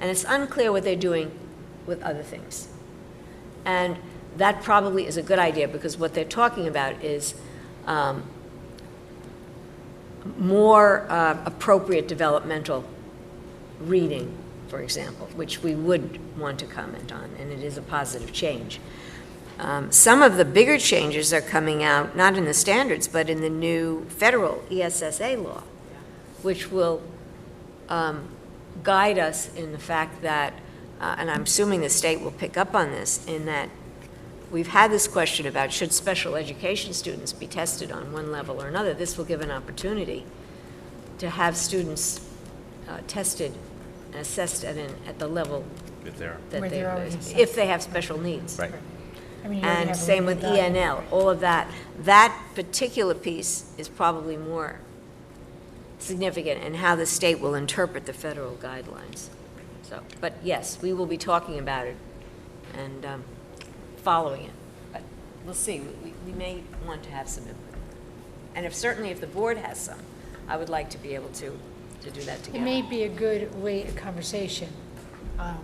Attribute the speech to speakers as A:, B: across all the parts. A: And it's unclear what they're doing with other things. And that probably is a good idea, because what they're talking about is um, more uh, appropriate developmental reading, for example, which we would want to comment on, and it is a positive change. Um, Some of the bigger changes are coming out, not in the standards, but in the new federal E ESSA law, which will um, guide us in the fact that, uh, and I'm assuming the state will pick up on this, in that we've had this question about should special education students be tested on one level or another? This will give an opportunity to have students uh, tested and assessed at, an- at the level
B: If they're,
A: that
C: Where
A: they,
C: they're already assessed.
A: if they have special needs.
B: right.
C: I mean, you already
A: And
C: have a
A: same with E
C: limited diet.
A: ENL, all of that. That particular piece is probably more significant in how the state will interpret the federal guidelines. So, but yes, we will be talking about it and um, following it. But we'll see, We- we, we may want to have some input. And if, certainly if the board has some, I would like to be able to, to do that
C: It
A: together.
C: may be a good way, a conversation, um,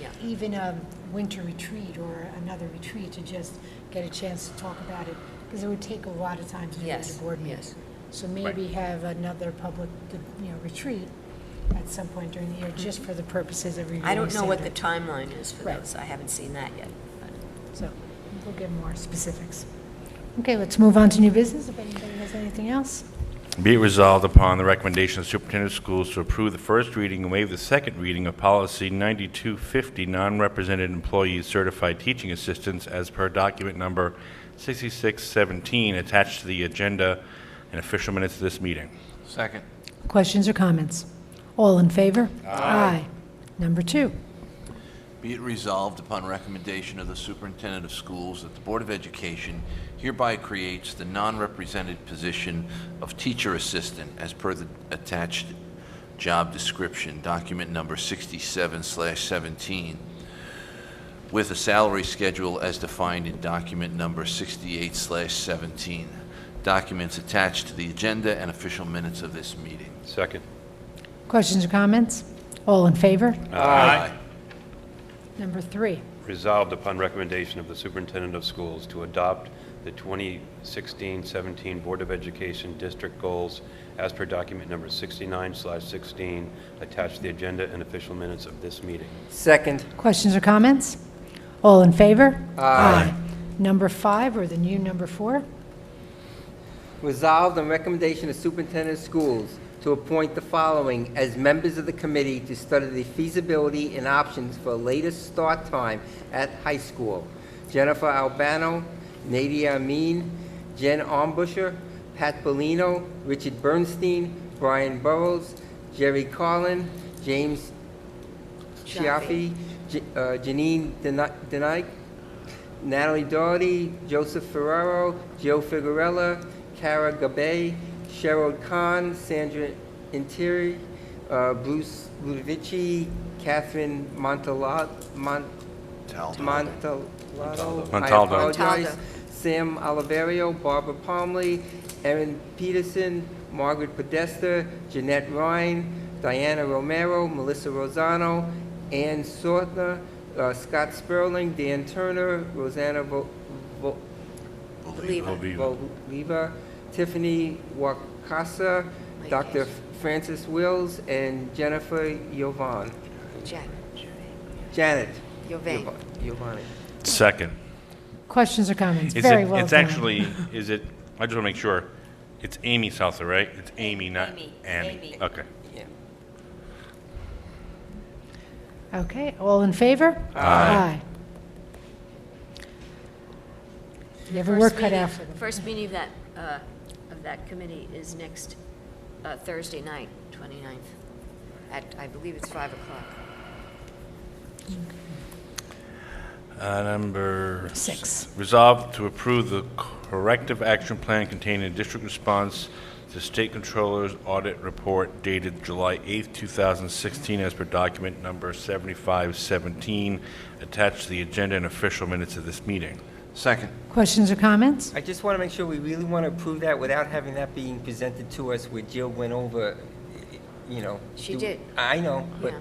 A: Yeah.
C: even a winter retreat or another retreat to just get a chance to talk about it, because it would take a lot of time to do as
A: Yes,
C: a board meeting.
A: yes.
C: So maybe have another public, you know, retreat at some point during the year, just for the purposes of reviewing.
A: Mm-hmm. I don't know what the
C: standards.
A: timeline is for
C: Right.
A: those, I haven't seen that yet. but-
C: So we'll get more specifics. Okay, let's move on to new business, if anybody has anything else.
B: Be it resolved upon the recommendation of the superintendent of schools to approve the first reading and waive the second reading of policy 9250, non-represented employees certified teaching assistants as per document number 6617 attached to the agenda and official minutes of this meeting.
D: Second.
C: Questions or comments? All in favor? Aye. Number two.
D: Be it resolved upon recommendation of the superintendent of schools that the Board of Education hereby creates the non-represented position of teacher assistant as per the attached job description, document number 67/17, with a salary schedule as defined in document number 68/17, documents attached to the agenda and official minutes of this meeting.
B: Second.
C: Questions or comments? All in favor?
B: Uh.
D: Aye.
C: Number three.
E: Resolved upon recommendation of the superintendent of schools to adopt the 2016-17 Board of Education district goals as per document number 69/16 attached to the agenda and official minutes of this meeting.
F: Second.
C: Questions or comments? All in favor? Aye. Number five, or the new number four?
F: Resolved on recommendation of superintendent of schools to appoint the following as members of the committee to study the feasibility and options for a later start time at high school. Jennifer Albano, Nadia Amin, Jen Armbusher, Pat Bellino, Richard Bernstein, Brian Burrows, Jerry Carlin, James Chiaffi, J- uh, Janine Deni- Denike, Natalie Doherty, Joseph Ferraro, Joe Figurella, Cara Gabay, Cheryl Khan, Sandra Interi, uh, Bruce Ludovici, Catherine Montalot, Mont,
D: Taldo.
F: Montalado.
B: Montaldo.
F: I
A: Montaldo.
F: apologize. Sam Oliverio, Barbara Palmley, Erin Peterson, Margaret Podesta, Jeanette Ryan, Diana Romero, Melissa Rosano, Ann Sortner, uh, Scott Sperling, Dan Turner, Rosanna Vo- Vo-
A: Believe it.
F: Voliva, Tiffany Wakasa, Dr. Francis Wills, and Jennifer Yovan.
A: Jack,
F: Janet.
A: Yovan.
F: Yovan- Yovani.
B: Second.
C: Questions or comments?
B: Is
C: Very
B: it-
C: well
B: It's
C: done.
B: actually, is it, I just want to make sure, it's Amy Southard, right? It's Amy, not Annie.
A: Amy, Amy.
B: Okay.
F: Yeah.
C: Okay, all in favor? Aye. You have a work
A: First
C: cut out
A: meeting-
C: for them.
A: First meeting of that, uh, of that committee is next uh, Thursday night, 29th, at, I believe it's 5 o'clock.
B: Uh, Number...
C: Six.
B: Resolved to approve the corrective action plan containing a district response to State Controller's Audit Report dated July 8th, 2016, as per document number 7517, attached to the agenda and official minutes of this meeting.
D: Second.
C: Questions or comments?
F: I just want to make sure we really want to approve that without having that being presented to us where Jill went over, you know.
A: She
F: do-
A: did.
F: I know, but
A: Yeah.